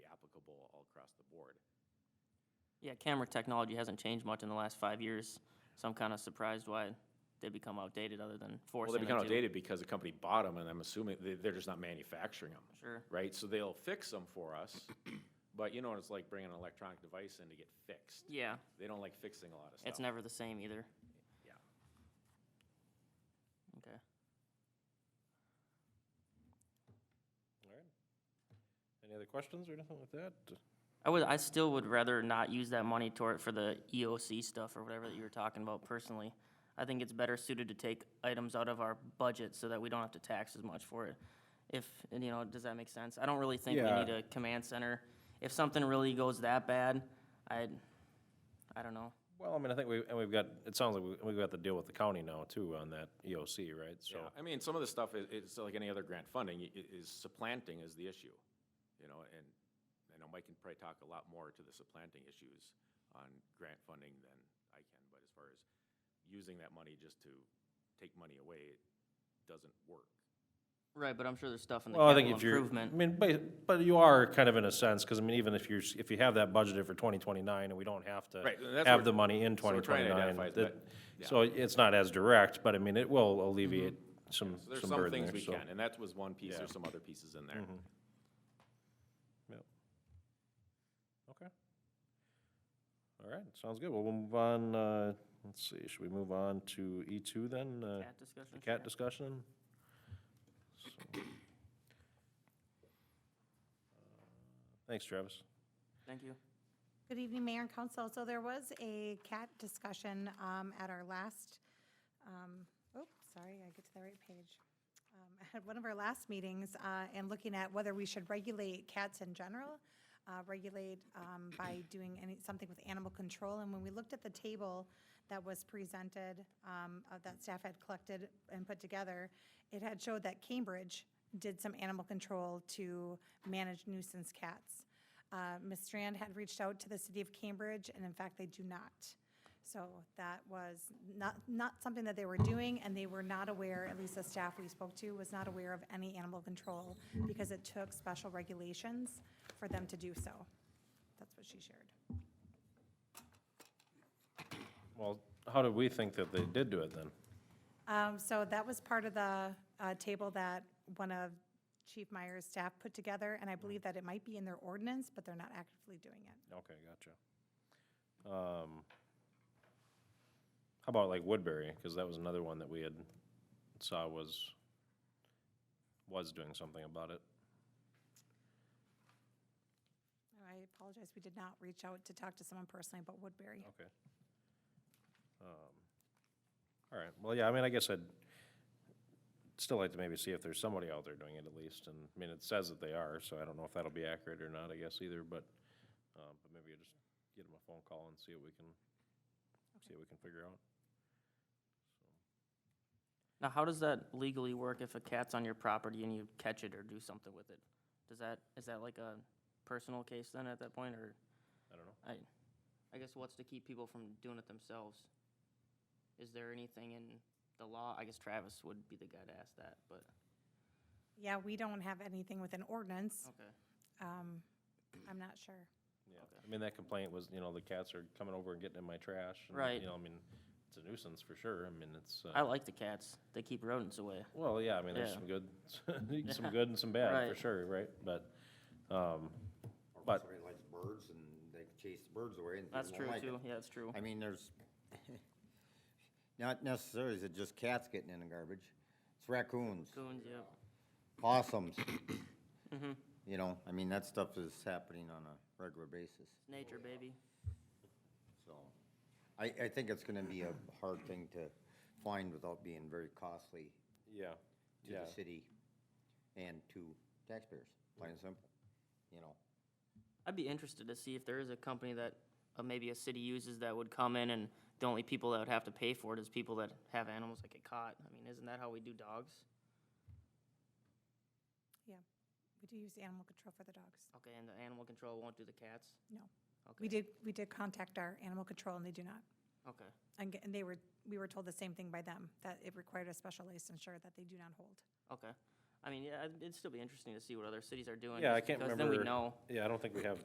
Yeah, camera technology hasn't changed much in the last five years, so I'm kind of surprised why they become outdated other than Well, forcing they them to. become outdated because the company bought them, and I'm assuming they- they're just not manufacturing them, Sure, right? So they'll fix them for us, but you know what it's like bringing an electronic device in to get fixed. yeah, They don't like fixing a lot of stuff. it's never the same either. Yeah. Okay, All right. Any other questions or anything like that? I would, I still would rather not use that money toward, for the EOC stuff or whatever that you were talking about personally. I think it's better suited to take items out of our budget so that we don't have to tax as much for it. If, and you know, does that make sense? I don't really think we Yeah. need a command center. If something really goes that bad, I, I don't know. Well, I mean, I think we, and we've got, it sounds like we- we've got the deal with the county now too on that EOC, right? So, Yeah, I mean, some of the stuff is, it's like any other grant funding, i- i- is supplanting is the issue, you know, and I know Mike can probably talk a lot more to the supplanting issues on grant funding than I can, but as far as using that money just to take money away, it doesn't work. Right, but I'm sure there's stuff in the well, I think capital if you're, I improvement. mean, but, but you are kind of in a sense, because I mean, even if you're, s- if you have that budgeted for twenty twenty-nine and we don't have Right, and to that's have what- the money in so we're twenty trying to twenty-nine. identify is that- bet- yeah. So it's not as direct, but I mean, it will alleviate some, Mm-hmm. So there's some some burden things there, we so. can, and that was one piece, Yeah. Mm-hmm. there's some other pieces in there. Yep. Okay. All right, sounds good. Well, we'll move on, uh, let's see, should we move on to E two then? uh, Cat discussion? The cat Yeah. discussion? So- Thanks, Travis. Thank you. Good evening, Mayor and Council. So there was a CAT discussion um, at our last, um, oh, sorry, I get to the right page. Um, At one of our last meetings, uh, and looking at whether we should regulate cats in general, uh, regulate um, by doing any, something with animal control. And when we looked at the table that was presented, um, uh, that staff had collected and put together, it had showed that Cambridge did some animal control to manage nuisance cats. Uh, Ms. Strand had reached out to the city of Cambridge, and in fact, they do not. So that was not, not something that they were doing, and they were not aware, at least the staff we spoke to, was not aware of any animal control because it took special regulations for them to do so. That's what she shared. Well, how did we think that they did do it then? Um, so that was part of the, uh, table that one of Chief Meyer's staff put together, and I believe that it might be in their ordinance, but they're not actively doing it. Okay, gotcha. Um, How about like Woodbury, because that was another one that we had saw was, was doing something about it. I apologize, we did not reach out to talk to someone personally about Woodbury. Okay. Um, All right, well, yeah, I mean, I guess I'd still like to maybe see if there's somebody out there doing it at least, and, I mean, it says that they are, so I don't know if that'll be accurate or not, I guess either, but, uh, but maybe I just get them a phone call and see what we can, see what we can figure out. Now, how does that legally work if a cat's on your property and you catch it or do something with it? Does that, is that like a personal case then at that point, or, I don't know. I, I guess what's to keep people from doing it themselves? Is there anything in the law? I guess Travis would be the guy to ask that, but, Yeah, we don't have anything with an ordinance. okay. Um, I'm not sure. Yeah, I mean, that complaint was, you know, the cats are coming over and getting in my trash. and, Right. You know, I mean, it's a nuisance for sure, I mean, it's, I uh, like the cats. They keep rodents away. well, yeah, I mean, there's Yeah. some good, some good and some bad, for Right. sure, right? But, um, Or if But- Somebody likes birds and they chase the birds away and That's people true don't like it. too. Yeah, that's true. I mean, there's, not necessarily is it just cats getting in the garbage. It's raccoons, Coons, yeah. possums. Mm-hmm. You know, I mean, that stuff is happening on a regular basis, Nature, baby. so. I, I think it's gonna be a hard thing to find without being very costly yeah, to yeah. the city and to taxpayers, plain and simple, you know. I'd be interested to see if there is a company that uh, maybe a city uses that would come in and the only people that would have to pay for it is people that have animals that get caught. I mean, isn't that how we do dogs? We do use animal control for the dogs. Okay, and the animal control won't do the cats? No. Okay. We did, we did contact our animal control and they do not. Okay, And, ge- and they were, we were told the same thing by them, that it required a special licensure that they do not hold. okay. I mean, yeah, it'd- it'd still be interesting to see what other cities are doing. Yeah, I just can't because remember. Then we know. Yeah, I don't think we have